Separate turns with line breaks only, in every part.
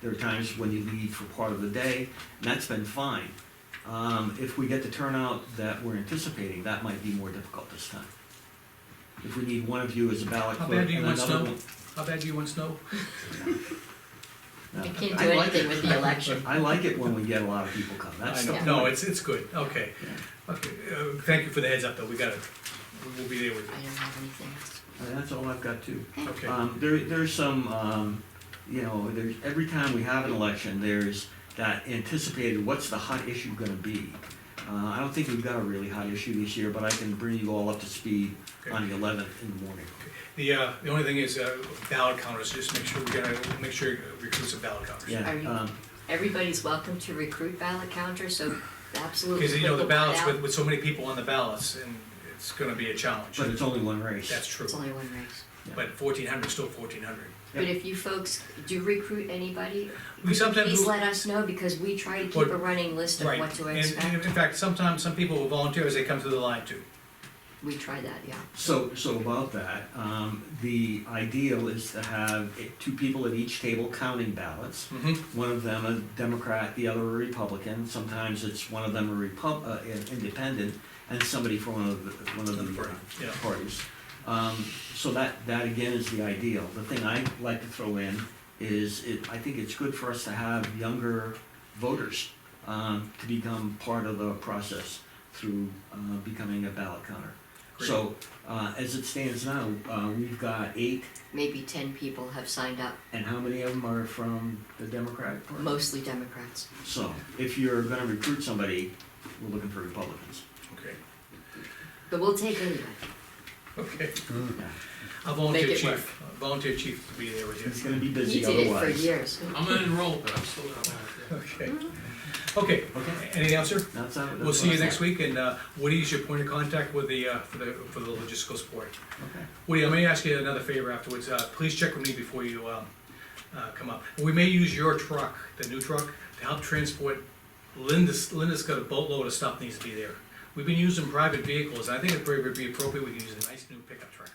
There are times when you leave for part of the day, and that's been fine. Um, if we get the turnout that we're anticipating, that might be more difficult this time. If we need one of you as a ballot
How
clerk
bad
and
do you want
another
snow?
one.
How bad do you want snow?
No.
You can't
I
do
like
anything
it.
with the election.
I like it when we get a lot of people come, that's the
know.
point.
No, it's, it's good, okay.
Yeah.
Okay, uh, thank you for the heads up, though, we gotta, we'll be there with
I don't have anything else.
And that's all I've got too.
you. Okay,
Um, there, there's some, um, you know, there's, every time we have an election, there's that anticipated, what's the hot issue gonna be? Uh, I don't think we've got a really hot issue this year, but I can bring you all up to speed
okay.
on the eleventh in the morning.
The, uh, the only thing is, uh, ballot counters, just make sure, we gotta, make sure you recruit some ballot counters.
Yeah,
Are you-
um,
Everybody's welcome to recruit ballot counters, so absolutely.
Because, you know, the
put one
ballots,
out.
with, with so many people on the ballots, and it's gonna be a challenge.
but it's only one race.
That's true,
It's only one race.
but fourteen hundred is still fourteen hundred.
But if you folks do recruit anybody,
We sometimes.
please
do-
let us know because we try to keep
What-
a running list of
Right,
what to
and- and
expect.
in fact, sometimes some people will volunteer as they come through the line too.
We try that, yeah.
So, so about that, um, the ideal is to have eh, two people at each table counting ballots.
Mm-hmm.
one of them a Democrat, the other a Republican. Sometimes it's one of them a Repub, uh, an independent, and somebody from one of the, one of the uh,
Yeah.
parties. Um, so that, that again is the ideal. The thing I like to throw in is it, I think it's good for us to have younger voters um, to become part of the process through uh, becoming a ballot counter. So uh, as it stands now, uh, we've got eight,
Maybe ten people have signed up,
and how many of them are from the Democratic Party?
mostly Democrats.
So, if you're gonna recruit somebody, we're looking for Republicans.
Okay,
But we'll take anybody.
okay.
Yeah.
I'll volunteer
Make it
chief, I'll volunteer chief to be there with
It's
you.
gonna be
He
busy
did it for
otherwise.
years.
I'm gonna enroll, but I'm still not on it.
Okay. Okay,
Okay.
anything else, sir?
That's how- that's
We'll see you
what I
next
thought.
week, and uh, Woody is your point of contact with the, uh, for the, for the logistical support.
Okay.
Woody, I may ask you another favor afterwards, uh, please check with me before you, um, uh, come up. We may use your truck, the new truck, to help transport, Linda's, Linda's got a boatload of stuff needs to be there. We've been using private vehicles, I think it would be appropriate we could use a nice new pickup truck.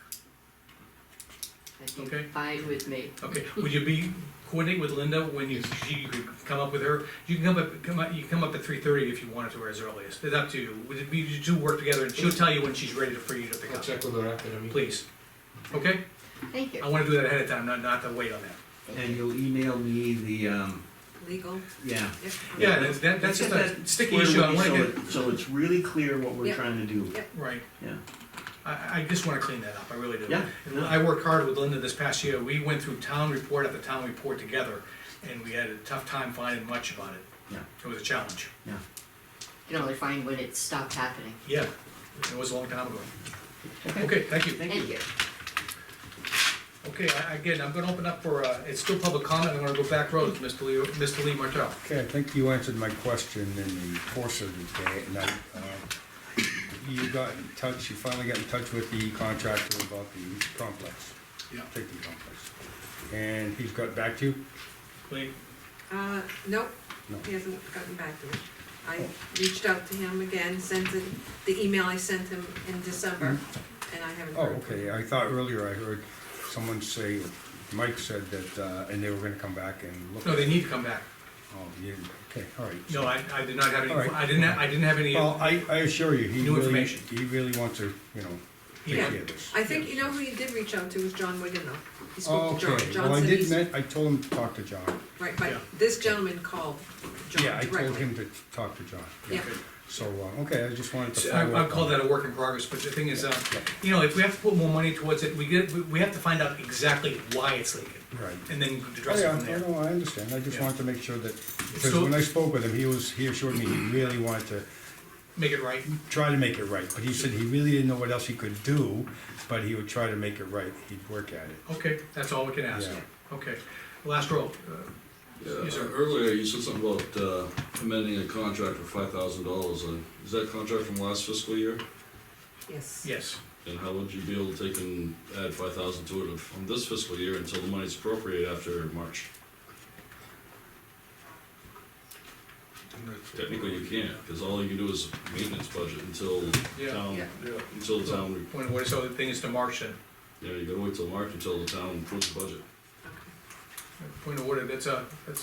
That'd be
Okay.
Fine with me.
Okay, would you be, coordinate with Linda when you, she could come up with her? You can come up, come up, you can come up at three thirty if you wanted to, or as early as, it's up to you. Would it be, you two work together, and she'll tell you when she's ready for you to pick
I'll
up,
check with her after the meeting.
please. Okay?
Thank
I
you.
wanna do that ahead of time, not, not to wait on that.
And you'll email me the, um,
legal.
yeah.
Yeah, that's, that- that's just a sticky issue, I wanna
So
get,
it- So it's really clear what we're
Yep.
trying to do.
Yep.
right,
Yeah,
I, I just wanna clean that up, I really do.
Yeah.
And I worked hard with Linda this past year, we went through town report after town report together, and we had a tough time finding much about it.
Yeah.
It was a challenge,
yeah.
You can only find when it stopped happening.
yeah, it was a long time ago. Okay, thank you.
Thank you.
Okay, I- again, I'm gonna open up for, uh, it's still public comment, I'm gonna go back road, Mr. Lee, Mr. Lee Martell.
Okay, I think you answered my question in the course of the day, and I, uh, you got in touch, you finally got in touch with the contractor about the complex,
Yeah.
safety complex. And he's got back to you?
Lee,
Uh, nope,
No. Oh.
he hasn't gotten back to me. I reached out to him again, sent him the email I sent him in December, and I haven't
Oh,
heard. from him.
okay, I thought earlier I heard someone say, Mike said that, uh, and they were gonna come back and look.
no, they need to come back.
Oh, you, okay, all right.
No, I, I did not have any,
All right.
I didn't, ha- I didn't have any,
Well, I, I assure you, he
New
really,
information.
he really wants to, you know, take
Yeah.
care of this.
I think, you know who he did reach out to was John Wigan though. He spoke to John.
Okay,
John
well, I
said
did,
he's-
men- I told him to talk to John.
Right, but
Yeah.
this gentleman called John
Yeah, I told
directly.
him to talk to John.
Yeah,
So, uh, okay, I just wanted to
So I,
follow up.
I'll call
on
that a work in progress, but the thing is, uh, you know, if we have to put more money towards it, we get, we- we have to find out exactly why it's leaking.
Right.
And then
Oh,
address it
yeah,
from
I
there.
know, I understand, I just
Yeah.
wanted to make sure that, because
So-
when I spoke with him, he was, he assured me he really wanted to
Make it right,
try to make it right, but he said he really didn't know what else he could do, but he would try to make it right, he'd work at it.
okay, that's all we can ask,
Yeah.
okay. Last row, Uh,
Yeah,
Yes, sir.
earlier you said something about uh, amending a contract for five thousand dollars. Uh, Is that contract from last fiscal year?
yes.
yes,
And how would you be able to take and add five thousand to it from this fiscal year until the money's appropriate after March? Technically, you can't, because all you can do is maintenance budget until
Yeah.
town,
Yeah.
until the town,
when, when, so the thing is to March then.
yeah, you gotta wait till March until the town approves the budget.
Okay.
Point of order, that's a, that's,